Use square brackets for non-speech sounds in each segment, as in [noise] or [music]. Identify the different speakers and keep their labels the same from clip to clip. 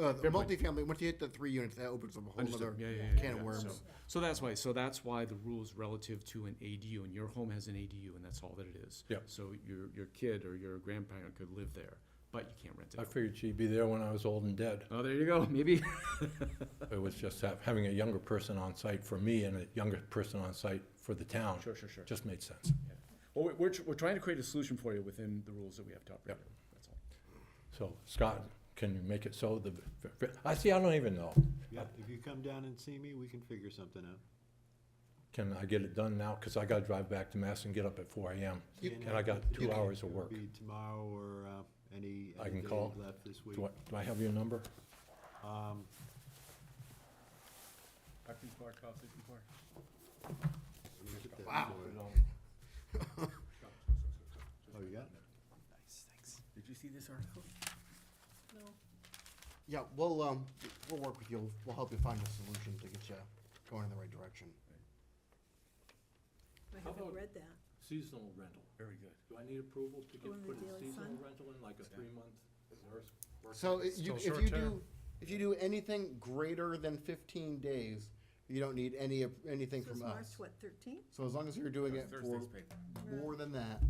Speaker 1: uh, the
Speaker 2: point.
Speaker 1: multifamily, once you hit the three units, that opens up a whole
Speaker 2: Understood.
Speaker 1: other
Speaker 2: Yeah, yeah, yeah,
Speaker 1: can of
Speaker 2: yeah.
Speaker 1: worms.
Speaker 2: So- So that's why, so that's why the rules relative to an ADU, and your home has an ADU, and that's all that it is.
Speaker 3: Yep.
Speaker 2: So your, your kid or your grandparent could live there, but you can't rent it
Speaker 3: I
Speaker 2: out.
Speaker 3: figured she'd be there when I was old and dead.
Speaker 2: Oh, there you go, [laughs] maybe.
Speaker 3: It was just ha- having a younger person on site for me and a younger person on site for the town.
Speaker 2: Sure, sure, sure.
Speaker 3: Just made sense.
Speaker 2: Yeah. Well, we- we're, tr- we're trying to create a solution for you within the rules that we have to operate.
Speaker 3: Yep.
Speaker 2: under. That's all.
Speaker 3: So Scott, can you make it so the, I see, I don't even know.
Speaker 4: Yeah, if you come down and see me, we can figure something out.
Speaker 3: Can I get it done now? Because I got to drive back to Mass and get up at four AM. And I got two hours of
Speaker 4: It would
Speaker 3: work.
Speaker 4: Be tomorrow or uh, any.
Speaker 3: I
Speaker 4: any
Speaker 3: can
Speaker 4: day
Speaker 3: call.
Speaker 4: Left this week.
Speaker 3: Do I, do I have your number?
Speaker 2: Park, park, park.
Speaker 4: Let me get that
Speaker 1: Wow.
Speaker 4: for you. Oh, you got it?
Speaker 2: Nice, thanks. Did you see this article?
Speaker 1: Yeah, we'll, um, we'll work with you, we'll help you find a solution to get you going in the right direction.
Speaker 5: I
Speaker 3: about-
Speaker 5: haven't read that.
Speaker 3: Seasonal rental.
Speaker 2: Very good.
Speaker 3: Do I need approval to
Speaker 5: get- Oh, in the put a Daily seasonal Sun?
Speaker 3: rental in, like a three-month?
Speaker 1: So i- you, if
Speaker 3: Still
Speaker 1: you
Speaker 3: short-term.
Speaker 1: do, if you do anything greater than fifteen days, you don't need any, of- anything
Speaker 5: So it's
Speaker 1: from uh,
Speaker 5: March,
Speaker 1: us.
Speaker 5: what, 13?
Speaker 1: So as long as you're doing it for
Speaker 6: Thursday's paper.
Speaker 1: more than that,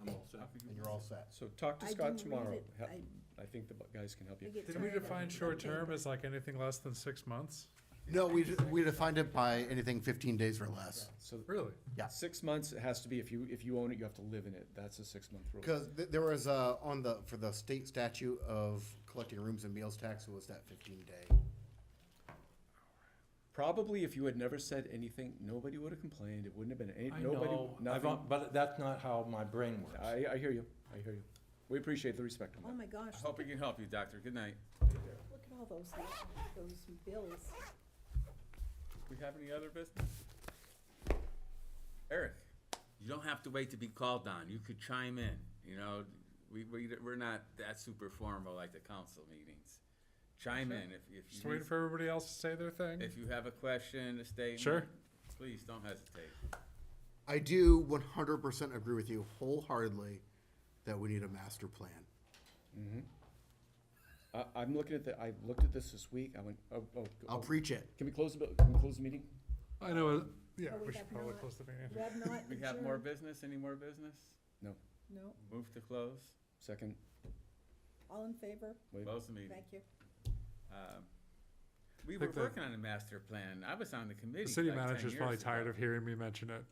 Speaker 3: I'm all set.
Speaker 1: then you're all set.
Speaker 2: So talk to
Speaker 5: I
Speaker 2: Scott
Speaker 5: didn't read
Speaker 2: tomorrow.
Speaker 5: it.
Speaker 2: Hel-
Speaker 5: I-
Speaker 2: I think the bu- guys can help
Speaker 5: I
Speaker 2: you.
Speaker 5: get
Speaker 6: Did we
Speaker 5: tired of
Speaker 6: define
Speaker 5: it.
Speaker 6: short-term as like anything less than six months?
Speaker 1: No, we, d- we defined it by anything fifteen days or less.
Speaker 2: So
Speaker 6: Really?
Speaker 1: Yeah.
Speaker 2: Six months, it has to be, if you, if you own it, you have to live in it. That's a six-month rule.
Speaker 1: Because th- there was, uh, on the, for the state statute of collecting rooms and meals tax, it was that fifteen day.
Speaker 2: Probably if you had never said anything, nobody would have complained. It wouldn't have been, any-
Speaker 3: I
Speaker 2: nobody,
Speaker 3: know, I've-
Speaker 2: nothing.
Speaker 3: but that's not how my brain works.
Speaker 2: I, I hear you. I hear you. We appreciate the respect on
Speaker 5: Oh,
Speaker 3: Um,
Speaker 2: that.
Speaker 5: my gosh,
Speaker 6: Hope we can help you, doctor. Good night.
Speaker 5: look at all those, those bills.
Speaker 6: We have any other business? Eric?
Speaker 7: You don't have to wait to be called on. You could chime in. You know, we, we, we're not that super formal like the council meetings. Chime in if, if
Speaker 6: Just
Speaker 7: you,
Speaker 6: waiting
Speaker 7: need-
Speaker 6: for everybody else to say their thing?
Speaker 7: if you have a question, a statement.
Speaker 6: Sure.
Speaker 7: Please don't hesitate.
Speaker 1: I do one hundred percent agree with you wholeheartedly that we need a master plan.
Speaker 2: I, I'm looking at the, I looked at this this week. I went, oh, oh.
Speaker 1: I'll
Speaker 2: oh.
Speaker 1: preach it.
Speaker 2: Can we close, the can we close the meeting?
Speaker 6: I know, uh, yeah,
Speaker 5: Oh,
Speaker 6: we should
Speaker 5: have
Speaker 6: probably
Speaker 5: not-
Speaker 6: close the meeting.
Speaker 5: We have
Speaker 6: [laughs]
Speaker 5: not
Speaker 7: We have more
Speaker 5: adjourned.
Speaker 7: business? Any more business?
Speaker 2: No.
Speaker 5: No,
Speaker 7: Move to close?
Speaker 2: Second.
Speaker 5: all in favor?
Speaker 2: Wait.
Speaker 7: Close the meeting.
Speaker 5: Thank you.
Speaker 7: Um, We were
Speaker 6: Think the-
Speaker 7: working on a master plan. I was on the committee.
Speaker 6: The city
Speaker 7: like 10
Speaker 6: manager's
Speaker 7: years
Speaker 6: probably
Speaker 7: ago.
Speaker 6: tired of hearing me mention it.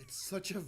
Speaker 1: It's such a